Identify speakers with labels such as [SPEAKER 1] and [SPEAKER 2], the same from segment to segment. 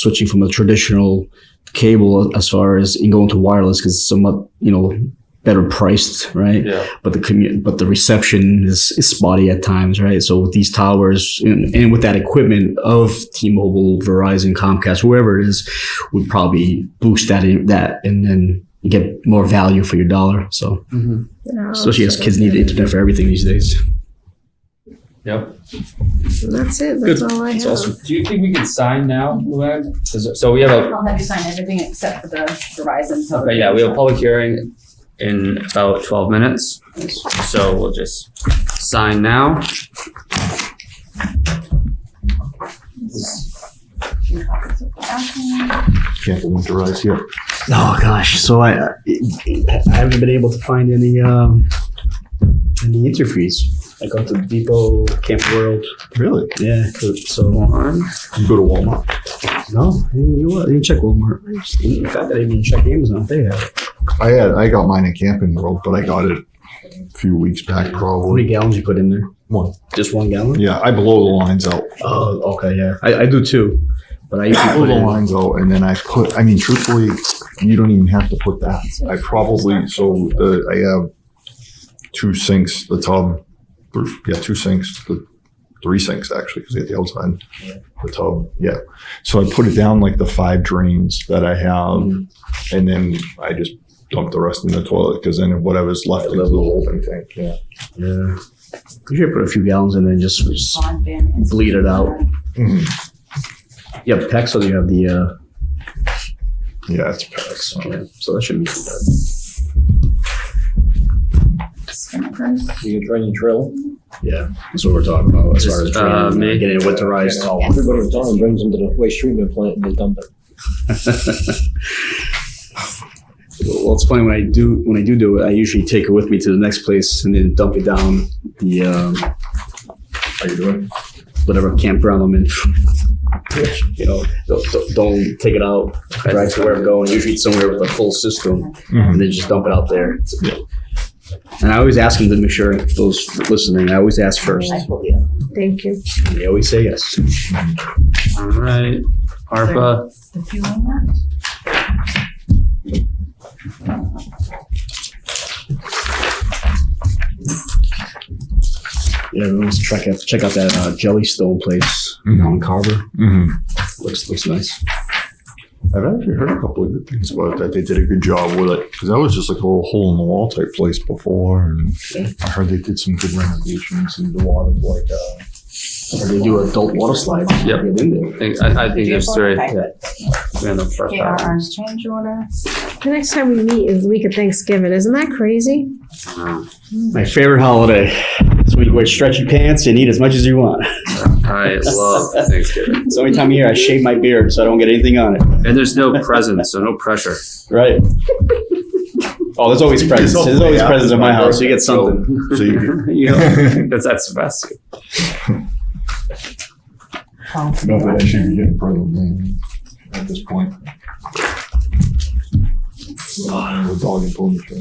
[SPEAKER 1] switching from a traditional cable as far as going to wireless because it's somewhat you know better priced, right?
[SPEAKER 2] Yeah.
[SPEAKER 1] But the commu- but the reception is, is spotty at times, right? So with these towers and, and with that equipment of T-Mobile, Verizon, Comcast, whoever it is, would probably boost that in, that and then you get more value for your dollar. So
[SPEAKER 3] Oh,
[SPEAKER 1] especially as kids need internet for everything these days.
[SPEAKER 2] Yep.
[SPEAKER 3] That's it. That's all I have.
[SPEAKER 2] That's awesome. Do you think we can sign now, Luann? Is- So we have a,
[SPEAKER 4] I'll have you sign everything except for the Verizon.
[SPEAKER 2] okay, yeah, we have a public hearing in about twelve minutes. So we'll just sign now.
[SPEAKER 5] Can't winterize here.
[SPEAKER 1] Oh gosh, so I I I haven't been able to find any um any interviews. I go to Depot Camp World,
[SPEAKER 5] Really?
[SPEAKER 1] yeah. So
[SPEAKER 2] One.
[SPEAKER 5] You go to Walmart.
[SPEAKER 1] no, you know what? You check Walmart. In fact, I didn't even check Amazon. They have it.
[SPEAKER 5] I had I got mine in Camping World, but I got it a few weeks back
[SPEAKER 1] How many
[SPEAKER 5] probably.
[SPEAKER 1] gallons you put in there?
[SPEAKER 5] One.
[SPEAKER 1] Just one gallon?
[SPEAKER 5] Yeah, I blow the lines out.
[SPEAKER 1] Oh, okay, yeah. I, I do too, but I usually
[SPEAKER 5] I
[SPEAKER 1] put
[SPEAKER 5] blow the
[SPEAKER 1] in.
[SPEAKER 5] lines out, and then I put. I mean, truthfully, you don't even have to put that. I probably so the, I have two sinks, the tub, three, yeah, two sinks, the three sinks actually, because they had the outside, the tub, yeah. So I put it down like the five drains that I have, and then I just dump the rest in the toilet because then whatever's left into the holding tank. Yeah,
[SPEAKER 1] Yeah, usually I put a few gallons and then just, just
[SPEAKER 4] Bleed
[SPEAKER 1] bleed it out.
[SPEAKER 5] Mm-hmm.
[SPEAKER 1] You have PEX or you have the uh,
[SPEAKER 5] yeah, it's packs.
[SPEAKER 1] yeah, so that shouldn't be too bad.
[SPEAKER 6] You can train and drill.
[SPEAKER 1] Yeah, that's what we're talking about as far as
[SPEAKER 2] Just,
[SPEAKER 1] training,
[SPEAKER 2] uh,
[SPEAKER 1] uh,
[SPEAKER 2] me.
[SPEAKER 1] getting it winterized.
[SPEAKER 6] Everybody who's done it brings them to the waste treatment plant and they dump it.
[SPEAKER 1] well, it's funny when I do when I do do it, I usually take it with me to the next place and then dump it down the um,
[SPEAKER 5] How you doing?
[SPEAKER 1] whatever campground I'm in. You know, don't, don't- don't take it out right to where I'm going. Usually it's somewhere with a full system,
[SPEAKER 5] Mhm.
[SPEAKER 1] and then just dump it out there. And I always ask them to make sure if those listening. I always ask first.
[SPEAKER 3] Thank you.
[SPEAKER 1] and They always say yes.
[SPEAKER 2] All right, ARPA,
[SPEAKER 4] The fuel on that?
[SPEAKER 1] Yeah, everyone's check out check out that uh, Jellystone place
[SPEAKER 5] Mhm.
[SPEAKER 1] on Carver.
[SPEAKER 5] Mm-hmm.
[SPEAKER 1] Looks looks nice.
[SPEAKER 5] I've actually heard a couple of good things about it, that they did a good job with it because that was just like a little hole in the wall type place before, and I heard they did some good renovations and the water like uh,
[SPEAKER 1] They do adult water slides.
[SPEAKER 2] Yep.
[SPEAKER 1] Get in there.
[SPEAKER 2] I think, I, I think there's three. We have the first
[SPEAKER 4] Okay, our
[SPEAKER 2] one.
[SPEAKER 4] orange change order.
[SPEAKER 3] The next time we meet is the week of Thanksgiving. Isn't that crazy?
[SPEAKER 1] My favorite holiday. So you wear stretchy pants and eat as much as you want.
[SPEAKER 2] I love Thanksgiving.
[SPEAKER 1] It's the only time of year I shave my beard so I don't get anything on it.
[SPEAKER 2] And there's no presents, so no pressure.
[SPEAKER 1] Right. Oh, there's always presents. There's always
[SPEAKER 5] Yeah.
[SPEAKER 1] presents in my house. You get something.
[SPEAKER 5] so you
[SPEAKER 2] You know, that's, that's the best.
[SPEAKER 5] not that I should be getting pregnant man, at this point. Uh, with dog and pony show.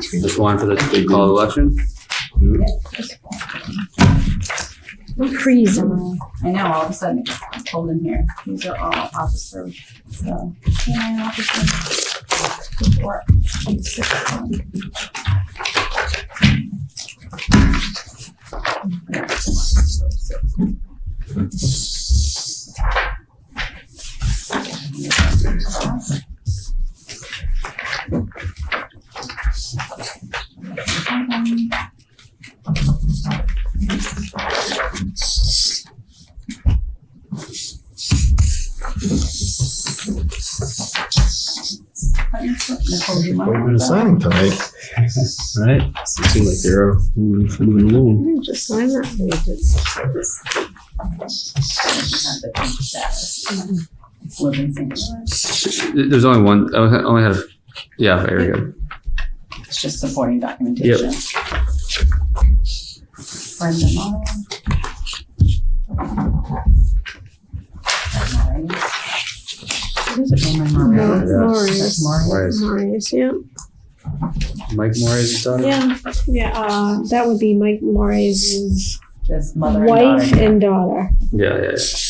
[SPEAKER 2] Just one for the big call election.
[SPEAKER 3] I'm freezing.
[SPEAKER 4] Mm-hmm. I know, all of a sudden it's cold in here. These are all officer, so. canine officer, report, and six, um, but you're still- Nicole, do you want
[SPEAKER 5] But
[SPEAKER 4] to-
[SPEAKER 5] you've been signing tonight.
[SPEAKER 1] Right. So it seems like they're moving, moving along.
[SPEAKER 3] I'm just sign that. We just-
[SPEAKER 4] Living single.
[SPEAKER 2] There's only one, I only have, yeah, there we go.
[SPEAKER 4] It's just supporting documentation. Brenda Mullin. Who's it? Raymond Moran.
[SPEAKER 3] Marius.
[SPEAKER 2] Marius.
[SPEAKER 3] Marius, yeah.
[SPEAKER 2] Mike Moore is daughter?
[SPEAKER 3] Yeah, yeah, uh, that would be Mike Maury's
[SPEAKER 4] His mother and
[SPEAKER 3] wife
[SPEAKER 4] daughter.
[SPEAKER 3] and daughter.
[SPEAKER 2] Yeah, yeah, yeah.